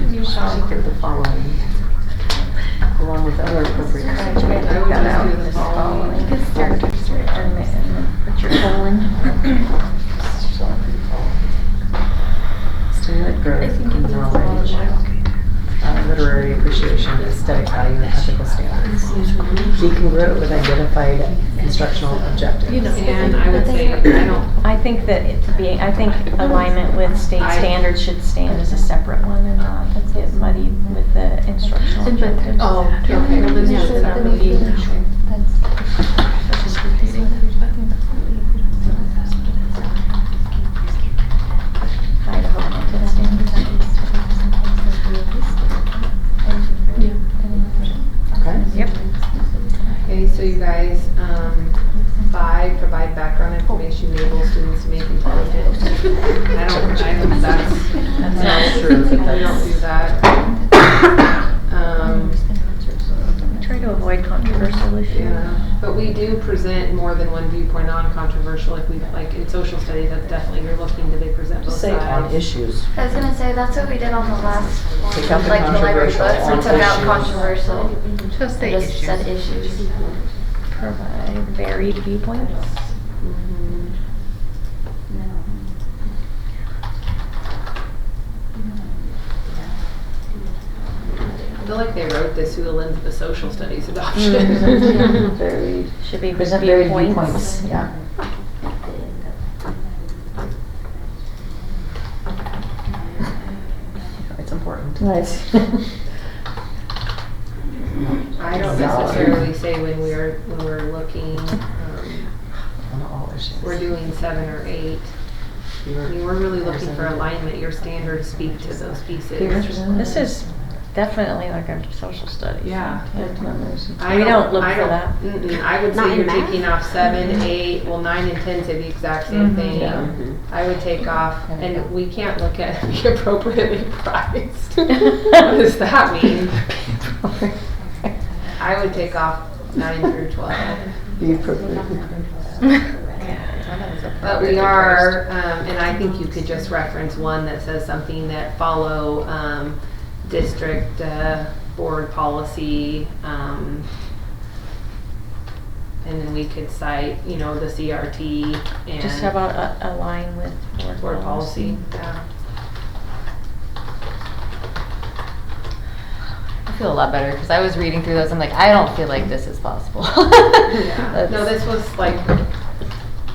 looked at the following, along with other appropriations. I tried to pick that out this fall, like it's starting to start and then Richard Colin. Stimulate I growth think in it's a lot knowledge, uh, literary appreciation, aesthetic value, and ethical standards. Be congruent with identified instructional You know. objectives. And I would say, I don't, I think that it being, I think alignment with state I- standards should stand as a separate one and not, let's get muddy with the instructional And but- objectives. oh, okay, well, then yes, that would be. Idaho content standards. Okay? Yep. Okay, so you guys, um, five, provide background information to enable students to make intelligent. I don't, I don't, that's, That's that's not true, true, we but don't do that's, that. Um, Try to avoid controversial issues. yeah, but we do present more than one viewpoint, non-controversial, if we, like, in social studies, that's definitely, you're looking, do they present both just say on sides? issues. I was gonna say, that's what we did on the last Take out one, the like the library controversial books, we on took out issues. controversial. Just It the Just issues. said issues. Provide varied viewpoints. Mhm. I feel like they wrote this through the lens of a social studies adoption. Mm-hmm. Varied. Should be Present varied viewpoints. viewpoints, yeah. It's important. Right. I don't necessarily say when we're, when we're looking, um, On all issues. we're doing seven or eight. I mean, we're really looking for alignment, your standards speak to those pieces. This is definitely like a social studies. Yeah. We don't look I for don't- that. Mm-mm, I would Not say in you're math? taking off seven, eight, well, nine and ten say the exact same Mhm. thing. Yeah. I would take off, There you go. and we can't look at be appropriately priced. What does that mean? I would take off nine through twelve. Be appropriate. But we are, um, and I think you could just reference one that says something that follow, um, district, uh, board policy, um, and then we could cite, you know, the CRT and. Just how about a- align with Board policy, yeah. I feel a lot better because I was reading through those. I'm like, I don't feel like this is possible. Yeah. That's- No, this was like,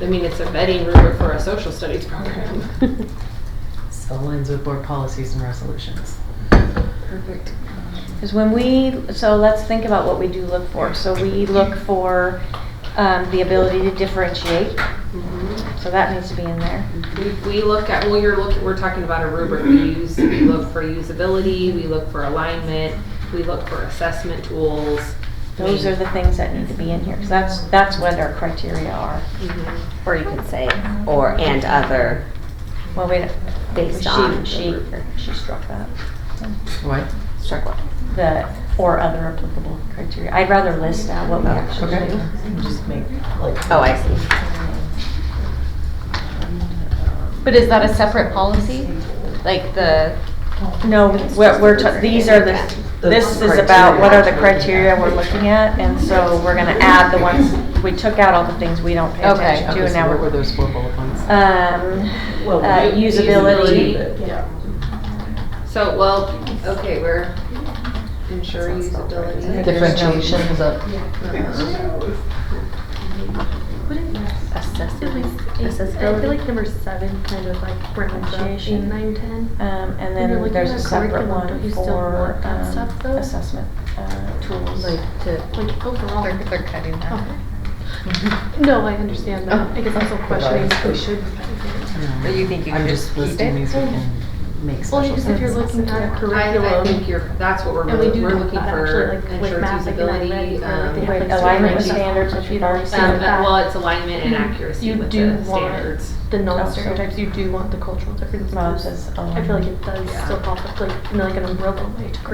I mean, it's a vetting rubric for a social studies program. So aligns with board policies and resolutions. Perfect. Because when we, so let's think about what we do look for. So we look for um, the ability to differentiate, Mm-hmm. so that needs to be in there. We, we look at, well, you're looking, we're talking about a rubric we use, we look for usability, we look for alignment, we look for assessment tools. Mm-hmm. Those are the things that need to be in here, because that's, that's what our criteria are. Mhm. Or you could say, or and other Well, we, based she- on. She, she struck that, What? Struck one. the, or other applicable criteria. I'd rather list out what we actually Okay. do. Just make like. Oh, I see. But is that a separate policy? Like the, No, we're, we're, ta- these are the, this is about what are the criteria we're looking at, and so we're gonna add the ones, we took out all the things we don't pay Okay, attention to, and now What were we're. those four bullet points? Um, Well, uh, u- usability, Yeah. So, well, okay, we're ensure usability. Differentiation is up. Uh-huh. I feel like number seven kind of like brings up eight, Differentiation. nine, ten. um, and When you're then looking there's at a separate curriculum, one don't you still for, want that stuff, um, though? assessment, uh, tools. Like overall. they're, they're cutting Okay. that. No, I understand Oh. that. I guess I'm still questioning if we should. But you think you I'm could just just keep listing it? these we can make Well, you special. just if you're sense. looking at a I, I curriculum. think you're, that's what we're And we really, do we're know looking that for actually, like, with ensure math, like, in that usability. read, or um, they Wait, oh, like alignment with differentiate- standards, which we've already Um, seen. well, it's alignment and accuracy You with do the want standards. The non-stereotypes, you do want the cultural differences. Well, it says I feel like alignment. it does Yeah. still pop up like, in like an umbrella way to